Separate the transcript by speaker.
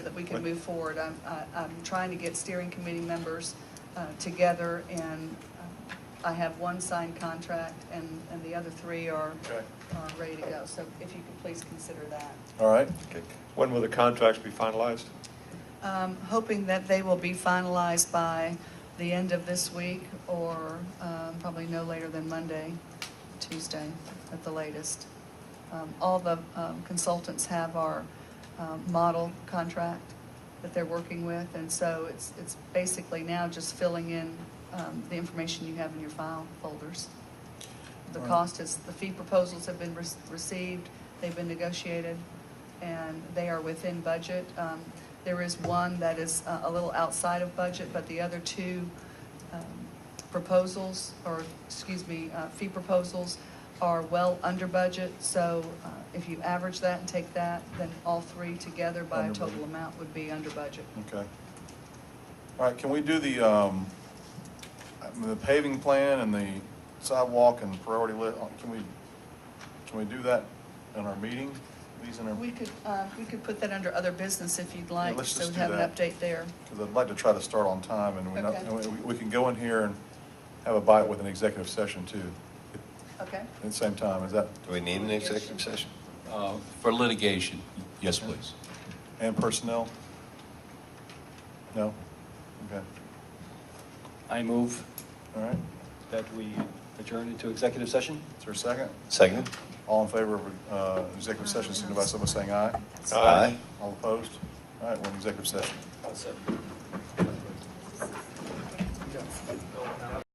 Speaker 1: that we can move forward. I'm, I- I'm trying to get steering committee members uh, together, and uh, I have one signed contract, and, and the other three are,
Speaker 2: Okay.
Speaker 1: are ready to go. So if you could please consider that.
Speaker 2: All right,
Speaker 3: Okay. When will the contracts be finalized?
Speaker 1: Um, Hoping that they will be finalized by the end of this week, or um, probably no later than Monday, Tuesday at the latest. Um, All the um, consultants have our um, model contract that they're working with, and so it's, it's basically now just filling in um, the information you have in your file folders. The
Speaker 2: Right.
Speaker 1: cost is, the fee proposals have been rec- received, they've been negotiated, and they are within budget. Um, There is one that is uh, a little outside of budget, but the other two um, proposals, or, excuse me, uh, fee proposals are well under budget, so uh, if you average that and take that, then all three together by a
Speaker 2: Under budget.
Speaker 1: total amount would be under budget.
Speaker 2: okay. All right, can we do the, um, I mean, the paving plan and the sidewalk and priority list, can we, can we do that in our meeting? These in our,
Speaker 1: We could, uh, we could put that under other business if you'd like,
Speaker 2: let's
Speaker 1: so
Speaker 2: just
Speaker 1: we
Speaker 2: do
Speaker 1: have an
Speaker 2: that.
Speaker 1: update there.
Speaker 2: because I'd like to try to start on time and we're not,
Speaker 1: Okay.
Speaker 2: and we, we can go in here and have a bite with an executive session too,
Speaker 1: Okay?
Speaker 2: at the same time, is that,
Speaker 4: Do we need an executive session?
Speaker 5: Uh, For litigation, yes, please.
Speaker 2: and personnel? No? Okay,
Speaker 6: I move
Speaker 2: all right,
Speaker 6: that we adjourn into executive session.
Speaker 2: is there a second?
Speaker 4: Second?
Speaker 2: All in favor of, uh, executive session, signify by saying aye.
Speaker 4: Aye.
Speaker 2: All opposed? All right, we're in executive session.
Speaker 6: Awesome.